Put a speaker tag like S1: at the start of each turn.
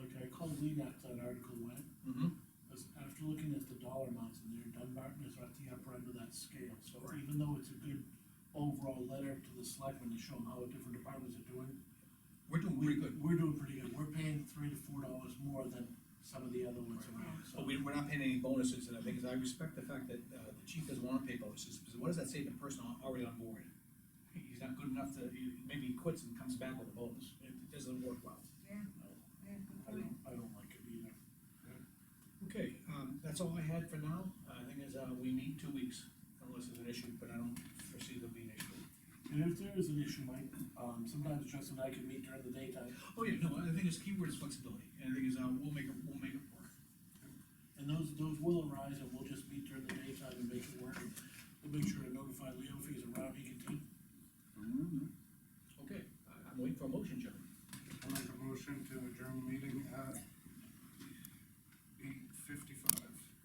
S1: cleanup that article went,
S2: Mm-hmm.
S1: was after looking at the dollar amounts in there, Dunbarton is at the upper end of that scale, so even though it's a good overall letter to the selectmen to show them how different departments are doing,
S2: We're doing
S1: we,
S2: pretty good,
S1: we're doing pretty good, we're paying three to four dollars more than some of the other ones around, so.
S2: but we, we're not paying any bonuses, and I think, is I respect the fact that, uh, the chief doesn't wanna pay bonuses, because what does that say to the person al- already on board? He's not good enough to, he- maybe he quits and comes back with a bonus, it doesn't work well.
S3: Yeah, yeah, good
S1: I
S3: point.
S1: don't, I don't like it either.
S2: Okay, um, that's all I had for now, I think is, uh, we need two weeks, unless there's an issue, but I don't foresee there being an issue.
S1: And if there is an issue, Mike, um, sometimes Justin and I can meet during the daytime,
S2: Oh, yeah, no, I think it's keyword is flexibility, and I think is, uh, we'll make it, we'll make it work.
S1: and those, those will arise, and we'll just meet during the daytime and make it work. and We'll make sure to notify Leo if he's around, he can take,
S2: Okay, I, I'm waiting for a motion, John.
S4: I make a motion to adjourn the meeting at